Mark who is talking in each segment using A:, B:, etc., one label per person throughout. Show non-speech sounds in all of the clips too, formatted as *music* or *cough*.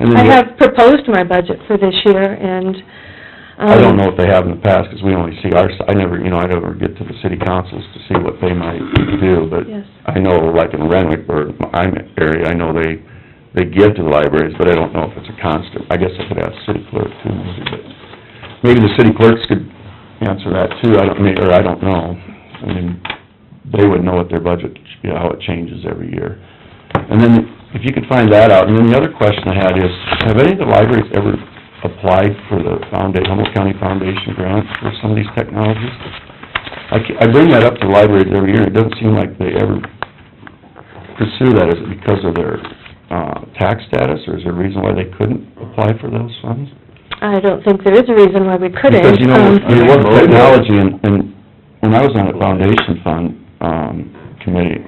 A: And then
B: I
A: you-
B: have proposed my budget for this year, and, um...
A: I don't know what they have in the past, 'cause we only see our, s- I never, you know, I never get to the city councils to see what they might do, but
B: Yes.
A: I know, like in Renwick, or I'm area, I know they, they give to the libraries, but I don't know if it's a constant. I guess I could ask city clerk too, maybe, but maybe the city clerks could answer that too, I don't, mean, or I don't know. I mean, they would know what their budget, you know, how it changes every year. And then, if you could find that out, and then the other question I had is, have any of the libraries ever applied for the founda, Humboldt County Foundation grant for some of these technologies? I, ca- I bring that up to libraries every year, it doesn't seem like they ever pursue that, is it because of their, uh, tax status, or is there a reason why they couldn't apply for those funds?
B: I don't think there is a reason why we couldn't.
A: Because, you know,
B: um,
A: with- you work technology, and, and when I was on the foundation fund, um, committee,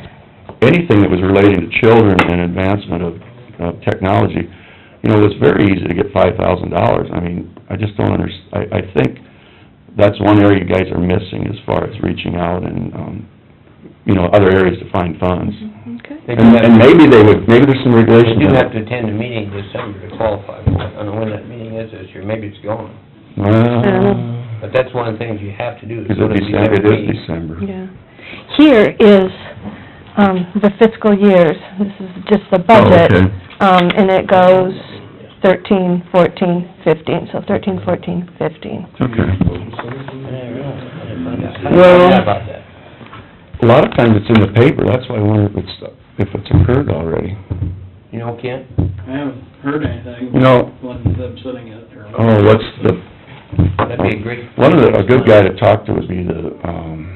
A: anything that was relating to children and advancement of, of technology, you know, it's very easy to get five thousand dollars, I mean, I just don't under, I, I think that's one area you guys are missing as far as reaching out and, um, you know, other areas to find funds.
B: Okay.
C: They do
A: And,
C: have-
A: and maybe they would, maybe there's some
C: You
A: regulation.
C: Mm-hmm. do have to attend a meeting in December to qualify. I don't know when that meeting is this year, maybe it's gone.
A: Well,
C: But that's one of the things you have to do. is
A: because
C: go to
A: it's
C: these
A: December, it
C: other
A: is
C: meetings.
A: December.
B: Yeah. Here is, um, the fiscal years, this is just the budget.
A: Oh, okay.
B: Um, and it goes thirteen, fourteen, fifteen, so thirteen, fourteen, fifteen.
A: Okay.
C: Yeah, really. I
A: Well-
C: forgot about that.
A: A lot of times it's in the paper, that's why I wonder if it's, if it's occurred already.
C: You know, Kent,
D: I haven't heard anything.
A: You know-
D: Wasn't upsetting it or...
A: Oh, what's the...
C: that'd be a great...
A: One of the, a good guy to talk to would be the, um,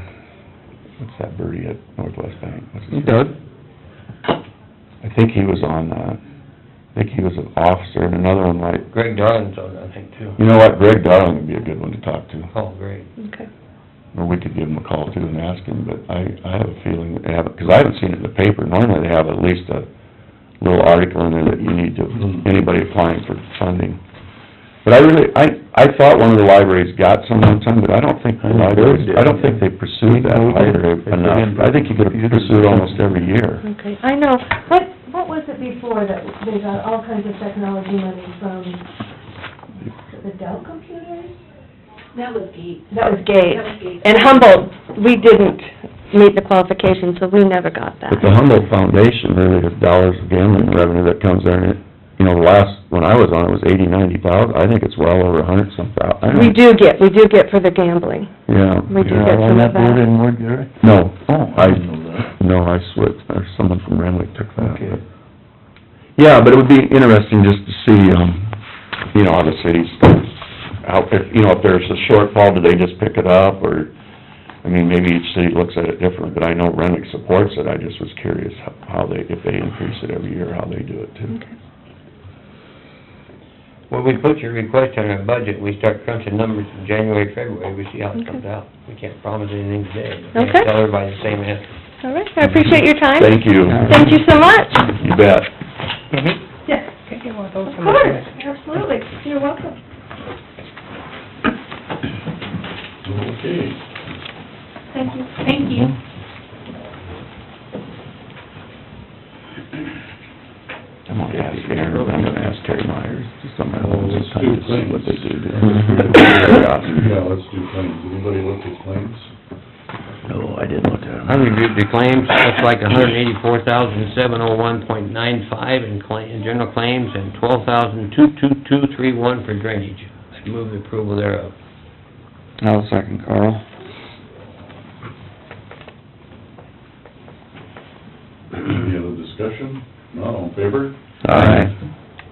A: what's that birdie at Northwest Bank? What's his name? I think he was on, uh, I think he was an officer, and another one like,
C: Greg Darling's on, that, I think, too.
A: you know what, Greg Darling would be a good one to talk to.
C: Oh, great.
B: Okay.
A: Or we could give him a call too and ask him, but I, I have a feeling that they haven't, because I haven't seen it in the paper. Normally they have at least a little article in there that you need to, anybody applying for funding. But I really, I, I thought one of the libraries got some one time, but I don't think the libraries, I don't think they pursued that library enough. I think you could have pursued almost every year.
B: Okay, I know, what, what was it before that they got all kinds of technology money from, was it the Dell computers?
E: That was Gates.
B: That was
E: That was
B: Gates.
E: Gates.
B: And Humboldt, we didn't meet the qualifications, so we never got that.
A: But the Humboldt Foundation, really, the dollars of gambling revenue that comes there, and it, you know, the last, when I was on, it was eighty, ninety thousand. I think it's well over a hundred some thou, I don't
B: We do get, we do get for the gambling.
A: Yeah.
B: We do get some of that.
A: anymore, Gary? No. Oh, I No, I switched, or someone from Renwick took that. but- Yeah, but it would be interesting just to see, um, you know, how the cities, how, if, you know, if there's a shortfall, do they just pick it up, or, I mean, maybe each city looks at it different, but I know Renwick supports it, I just was curious how- how they, if they increase it every year, how they do it too.
C: When we put your request on our budget, we start crunching numbers in January, February, we see how it comes
B: Okay.
C: out. We can't promise anything today. We
B: Okay.
C: can't tell everybody the same answer.
B: All right, I appreciate your time.
A: Thank you.
B: Thank you so much.
A: You bet.
C: Mm-hmm.
B: Yes,
C: Could you want those
B: of course, absolutely. You're welcome.
F: Okay.
B: Thank you.
E: Thank you.
A: I'm gonna ask Aaron, I'm gonna ask Terry Myers, just on my
F: Well,
A: own,
F: let's
A: just kind of
F: do
A: see what they do.
F: *laughs* claims.
A: to-
F: *laughs* Yeah, let's do claims. Anybody look at claims?
A: No, I didn't look at them.
C: I reviewed the claims, looks like a hundred and eighty-four thousand, seven oh one point nine five in claim, in general claims, and twelve thousand, two, two, two, three, one for drainage. I'd move the approval thereof.
A: I'll second Carl.
F: Any other discussion? Not on favor?
A: Aye.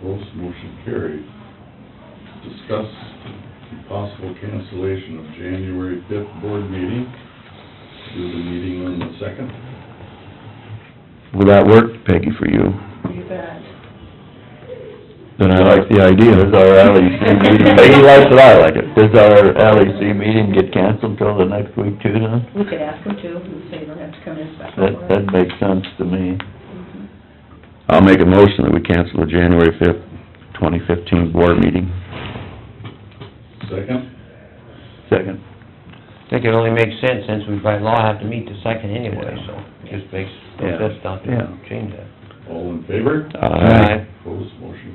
F: Opposed, motion carried. Discuss the possible cancellation of January fifth board meeting. Do the meeting on the second.
A: Will that work, Peggy, for you?
E: You bet.
A: Then I like the idea. Does our *laughs* LEC meeting, Peggy likes it, I like it. Does our LEC meeting get canceled till the next week too then?
E: We could ask them to, and say you don't have to come in special.
G: That, that makes sense to me.
A: Mm-hmm. I'll make a motion that we cancel the January fifth, twenty fifteen board meeting.
F: Second?
G: Second.
C: I think it only makes sense since we by law have to meet the second anyway, so it just makes, no
G: Yeah.
C: sense not to
G: Yeah.
C: change that.
F: All in favor?
A: Aye.
F: Opposed, motion